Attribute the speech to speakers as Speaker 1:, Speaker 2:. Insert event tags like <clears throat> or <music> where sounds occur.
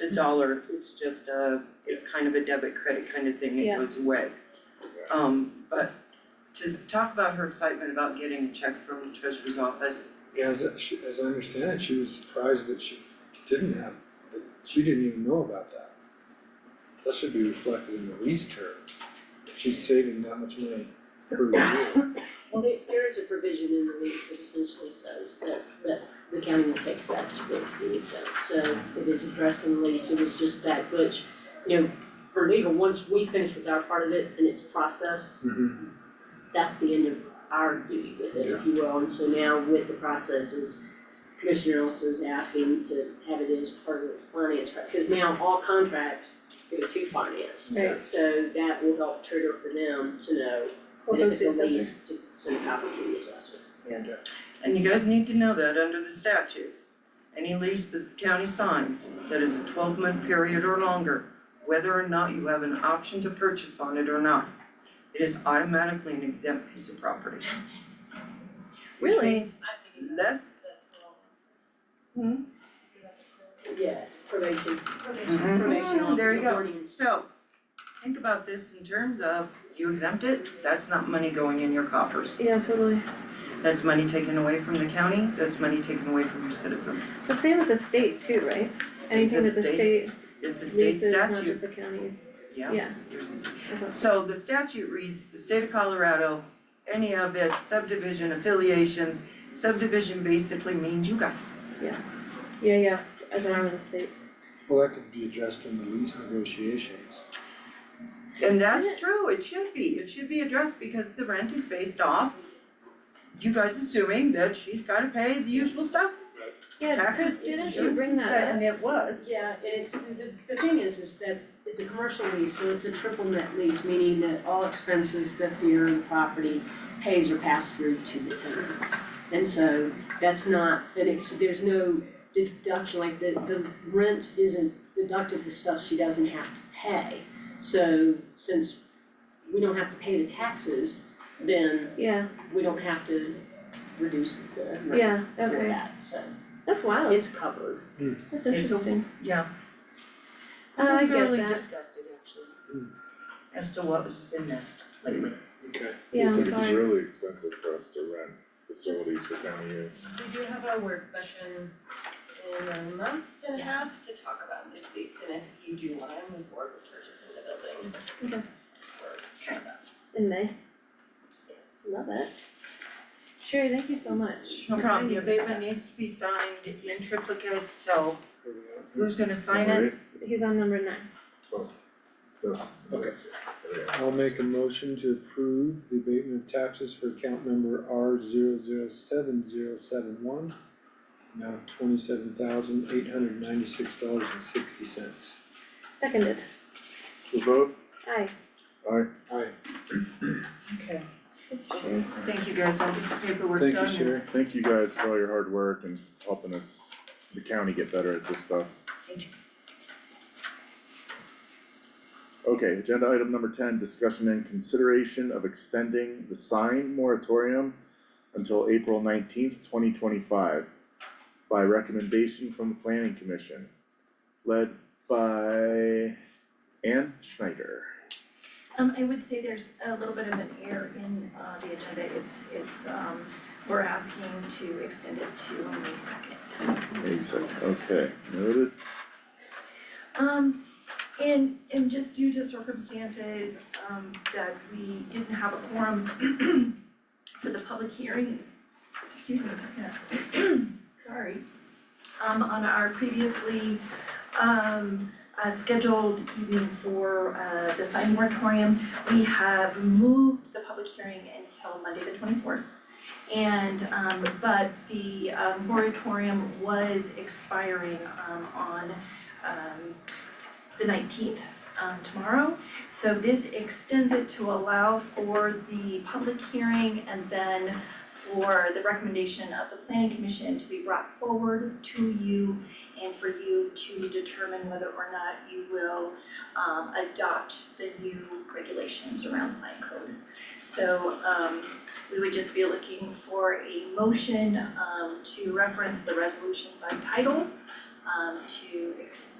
Speaker 1: a dollar, it's just a, it's kind of a debit credit kind of thing, it
Speaker 2: Yeah.
Speaker 1: goes away. Um, but to talk about her excitement about getting a check from the treasurer's office,
Speaker 3: Yeah, as, I- she- as I understand it, she was surprised that she didn't have, that she didn't even know about that. That should be reflected in the lease terms, if she's saving that much money per year.
Speaker 4: Well, there, there is a provision in the lease that essentially says that, that the county will take steps for it to be exempt, so it is addressed in the lease, it was just that, which, you know, for legal, once we finish with our part of it and it's processed,
Speaker 1: Mm-hmm.
Speaker 4: that's the end of our duty with it, if you will, and so now with the processes, Commissioner Olson is asking to have it as part of the finance, because now all contracts go to finance.
Speaker 2: Right.
Speaker 4: So that will help trigger for them to know
Speaker 2: What
Speaker 4: and if
Speaker 2: goes
Speaker 4: it's
Speaker 2: to
Speaker 4: a
Speaker 2: assessor?
Speaker 4: lease, to send a copy to the assessor.
Speaker 1: and you guys need to know that under the statute. Any lease that the county signs that is a twelve month period or longer, whether or not you have an option to purchase on it or not, it is automatically an exempt piece of property. Which
Speaker 2: Really?
Speaker 1: means less. Hmm?
Speaker 4: Yeah, probation.
Speaker 1: Mhm.
Speaker 4: Probation
Speaker 1: Mm, there you go.
Speaker 4: authorities.
Speaker 1: So, think about this in terms of you exempt it, that's not money going in your coffers.
Speaker 2: Yeah, totally.
Speaker 1: That's money taken away from the county, that's money taken away from your citizens.
Speaker 2: The same with the state too, right? Anything
Speaker 1: a
Speaker 2: that the state
Speaker 1: It's a state
Speaker 2: leases, not
Speaker 1: statute,
Speaker 2: just the counties.
Speaker 1: yeah.
Speaker 2: Yeah.
Speaker 1: There's-
Speaker 2: Okay.
Speaker 1: So the statute reads, the state of Colorado, any of its subdivision affiliations, subdivision basically means you guys.
Speaker 2: Yeah, yeah, as an arm of the state.
Speaker 3: Well, that could be addressed in the lease negotiations.
Speaker 1: And that's
Speaker 2: Isn't
Speaker 1: true, it should be, it should be addressed because the rent is based off you guys assuming that she's gotta pay the usual stuff,
Speaker 2: Yeah,
Speaker 1: taxes,
Speaker 2: Chris,
Speaker 1: insurance,
Speaker 2: didn't you bring that
Speaker 1: and
Speaker 2: up?
Speaker 1: it was.
Speaker 4: Yeah, and it's, the, the thing is, is that it's a commercial lease, so it's a triple net lease, meaning that all expenses that the owned property pays are passed through to the tenant. And so that's not, that it's, there's no deduction, like the, the rent isn't deducted for stuff she doesn't have to pay. So since we don't have to pay the taxes, then
Speaker 2: Yeah,
Speaker 4: we don't have to reduce the rate
Speaker 2: yeah,
Speaker 4: for
Speaker 2: okay. Oh.
Speaker 4: that, so
Speaker 2: That's wild.
Speaker 4: it's covered.
Speaker 1: It's
Speaker 2: That's
Speaker 1: a-
Speaker 2: interesting.
Speaker 1: Yeah.
Speaker 2: Uh, I get
Speaker 1: really
Speaker 2: that.
Speaker 1: disgusted actually,
Speaker 3: Mm.
Speaker 1: as to what was been missed lately.
Speaker 3: Okay.
Speaker 2: Yeah, I'm
Speaker 5: It's like it's
Speaker 2: sorry.
Speaker 5: really expensive for us to rent facilities for county use.
Speaker 6: We do have a work session in a month and a half to talk about this lease and if you do wanna move forward with purchasing the buildings.
Speaker 2: Okay.
Speaker 6: Or,
Speaker 2: And they
Speaker 6: yes.
Speaker 2: love it. Sherry, thank you so much.
Speaker 1: No
Speaker 2: for
Speaker 1: problem, the
Speaker 2: finding this
Speaker 1: abatement needs to be signed in triplicate, so
Speaker 3: Here we
Speaker 1: who's gonna sign it?
Speaker 2: stuff. He's on number nine.
Speaker 3: Okay. go. I'll make a motion to approve the abatement of taxes for account number R zero zero seven zero seven one. Amount of twenty-seven thousand eight hundred ninety-six dollars and sixty cents.
Speaker 2: Seconded.
Speaker 5: The vote,
Speaker 2: Aye.
Speaker 5: aye,
Speaker 3: Aye,
Speaker 1: Okay.
Speaker 2: Good, Sherry.
Speaker 1: Thank you guys, I'll get the paperwork done.
Speaker 3: thank you, Sherry.
Speaker 5: thank you guys for all your hard work and helping us, the county get better at this stuff.
Speaker 1: Thank you.
Speaker 5: Okay, agenda item number ten, discussion and consideration of extending the sign moratorium until April nineteenth, twenty twenty-five by recommendation from the planning commission, led by Ann Schneider.
Speaker 7: Um, I would say there's a little bit of an error in, uh, the agenda, it's, it's, um, we're asking to extend it to May second.
Speaker 5: Wait a second, okay, noted.
Speaker 7: Um, and, and just due to circumstances, um, that we didn't have a quorum <clears throat> for the public hearing, excuse me, just gonna, <clears throat> sorry, um, on our previously, um, uh, scheduled evening for, uh, the sign moratorium, we have moved the public hearing until Monday the twenty-fourth. And, um, but the, um, moratorium was expiring, um, on, um, the nineteenth, um, tomorrow. So this extends it to allow for the public hearing and then for the recommendation of the planning commission to be brought forward to you and for you to determine whether or not you will, um, adopt the new regulations around sign code. So, um, we would just be looking for a motion, um, to reference the resolution by title um, to extend